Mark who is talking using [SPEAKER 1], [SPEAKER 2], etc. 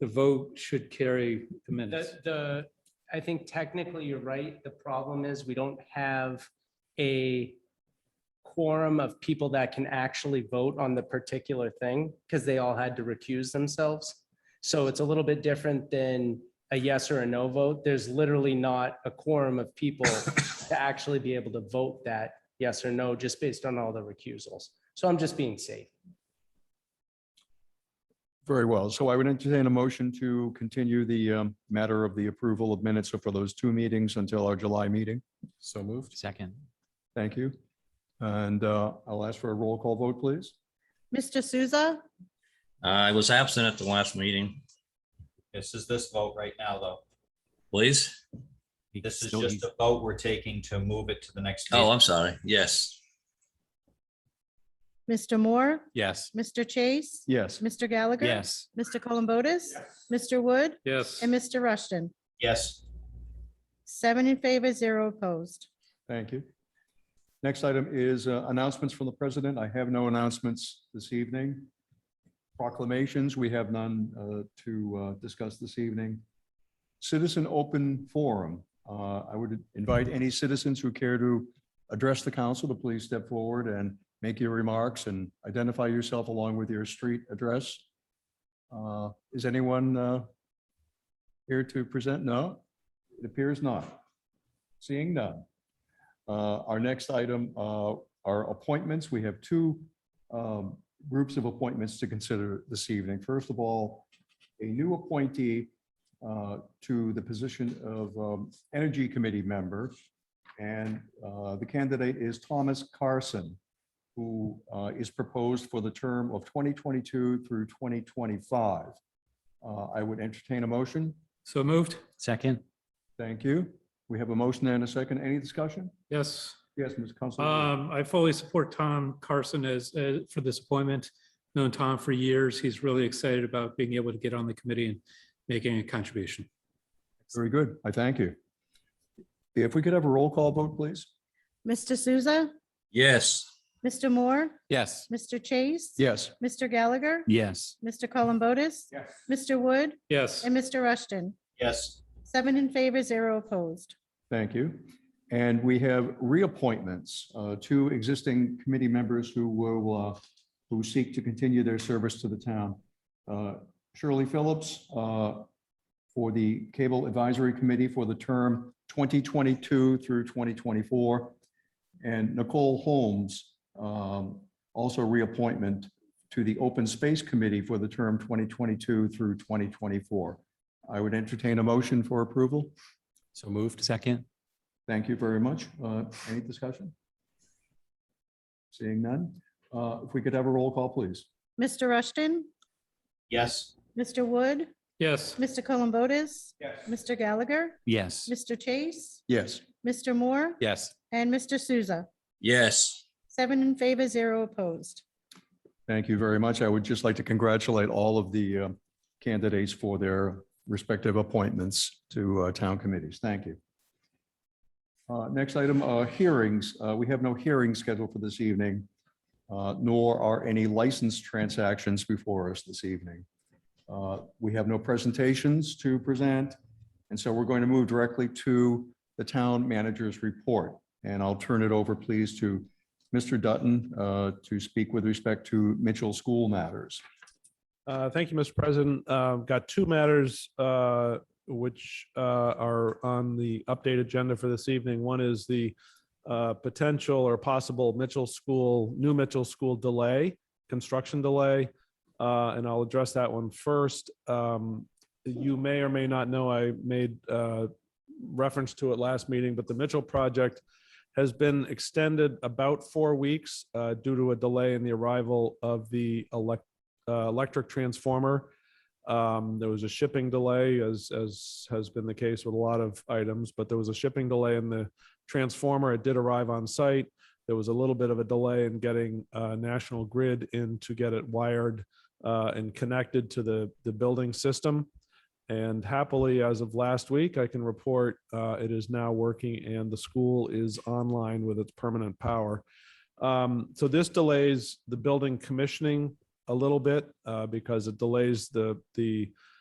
[SPEAKER 1] the vote should carry the minutes.
[SPEAKER 2] The, the, I think technically you're right. The problem is we don't have a quorum of people that can actually vote on the particular thing because they all had to recuse themselves. So it's a little bit different than a yes or a no vote. There's literally not a quorum of people to actually be able to vote that yes or no, just based on all the recusals. So I'm just being safe.
[SPEAKER 3] Very well. So I would entertain a motion to continue the um, matter of the approval of minutes for those two meetings until our July meeting.
[SPEAKER 4] So moved. Second.
[SPEAKER 3] Thank you. And uh, I'll ask for a roll call vote, please.
[SPEAKER 5] Mr. Souza,
[SPEAKER 6] Uh, I was absent at the last meeting,
[SPEAKER 7] This is this vote right now, though.
[SPEAKER 6] please.
[SPEAKER 7] This is just a vote we're taking to move it to the next.
[SPEAKER 6] Oh,
[SPEAKER 7] meeting.
[SPEAKER 6] I'm sorry. Yes.
[SPEAKER 5] Mr. Moore,
[SPEAKER 4] Yes.
[SPEAKER 5] Mr. Chase,
[SPEAKER 3] Yes,
[SPEAKER 5] Mr. Gallagher.
[SPEAKER 4] Yes.
[SPEAKER 5] Mr. Columbotus, Mr. Wood,
[SPEAKER 1] Yes,
[SPEAKER 5] and Mr. Rushton.
[SPEAKER 7] Yes,
[SPEAKER 5] Seven in favor, zero opposed.
[SPEAKER 3] thank you. Next item is uh, announcements from the president. I have no announcements this evening. Proclamations, we have none uh, to uh, discuss this evening. Citizen Open Forum. Uh, I would invite any citizens who care to address the council to please step forward and make your remarks and identify yourself along with your street address. Uh, Is anyone uh, here to present? No, it appears not. Seeing none. Uh, Our next item uh, are appointments. We have two um, groups of appointments to consider this evening. First of all, a new appointee uh, to the position of um, Energy Committee member. And uh, the candidate is Thomas Carson, who uh, is proposed for the term of 2022 through 2025. Uh, I would entertain a motion.
[SPEAKER 1] so moved.
[SPEAKER 4] Second.
[SPEAKER 3] Thank you. We have a motion and a second. Any discussion?
[SPEAKER 1] Yes.
[SPEAKER 3] Yes, Ms. Counselor.
[SPEAKER 1] Um, I fully support Tom Carson as, uh, for this appointment. Known Tom for years. He's really excited about being able to get on the committee and making a contribution.
[SPEAKER 3] Very good. I thank you. If we could have a roll call vote, please?
[SPEAKER 5] Mr. Souza,
[SPEAKER 6] Yes.
[SPEAKER 5] Mr. Moore,
[SPEAKER 4] Yes.
[SPEAKER 5] Mr. Chase.
[SPEAKER 3] Yes.
[SPEAKER 5] Mr. Gallagher,
[SPEAKER 4] Yes.
[SPEAKER 5] Mr. Columbotus, Mr. Wood,
[SPEAKER 1] Yes,
[SPEAKER 5] and Mr. Rushton.
[SPEAKER 7] yes,
[SPEAKER 5] Seven in favor, zero opposed.
[SPEAKER 3] Thank you. And we have reappointments, uh, two existing committee members who will, uh, who seek to continue their service to the town. Uh, Shirley Phillips uh, for the Cable Advisory Committee for the term 2022 through 2024. And Nicole Holmes, um, also reappointment to the Open Space Committee for the term 2022 through 2024. I would entertain a motion for approval.
[SPEAKER 4] So moved. Second.
[SPEAKER 3] Thank you very much. Uh, Any discussion? Seeing none. Uh, If we could have a roll call, please.
[SPEAKER 5] Mr. Rushton,
[SPEAKER 7] yes,
[SPEAKER 5] Mr. Wood,
[SPEAKER 1] yes,
[SPEAKER 5] Mr. Columbotus, Mr. Gallagher,
[SPEAKER 4] Yes.
[SPEAKER 5] Mr. Chase,
[SPEAKER 3] Yes.
[SPEAKER 5] Mr. Moore,
[SPEAKER 4] Yes.
[SPEAKER 5] and Mr. Souza.
[SPEAKER 6] Yes.
[SPEAKER 5] Seven in favor, zero opposed.
[SPEAKER 3] Thank you very much. I would just like to congratulate all of the uh, candidates for their respective appointments to uh, town committees. Thank you. Uh, Next item, uh, hearings. Uh, We have no hearings scheduled for this evening, uh, nor are any license transactions before us this evening. Uh, We have no presentations to present, and so we're going to move directly to the town manager's report. And I'll turn it over, please, to Mr. Dutton uh, to speak with respect to Mitchell School matters.
[SPEAKER 8] Uh, Thank you, Mr. President. Uh, Got two matters uh, which uh, are on the update agenda for this evening. One is the uh, potential or possible Mitchell School, new Mitchell School delay, construction delay. uh, And I'll address that one first. Um, You may or may not know, I made uh, reference to it last meeting, but the Mitchell project has been extended about four weeks uh, due to a delay in the arrival of the elect uh, electric transformer. Um, There was a shipping delay, as, as has been the case with a lot of items, but there was a shipping delay in the transformer. It did arrive on site. There was a little bit of a delay in getting uh, National Grid in to get it wired uh, and connected to the, the building system. And happily, as of last week, I can report uh, it is now working and the school is online with its permanent power. Um, So this delays the building commissioning a little bit uh, because it delays the the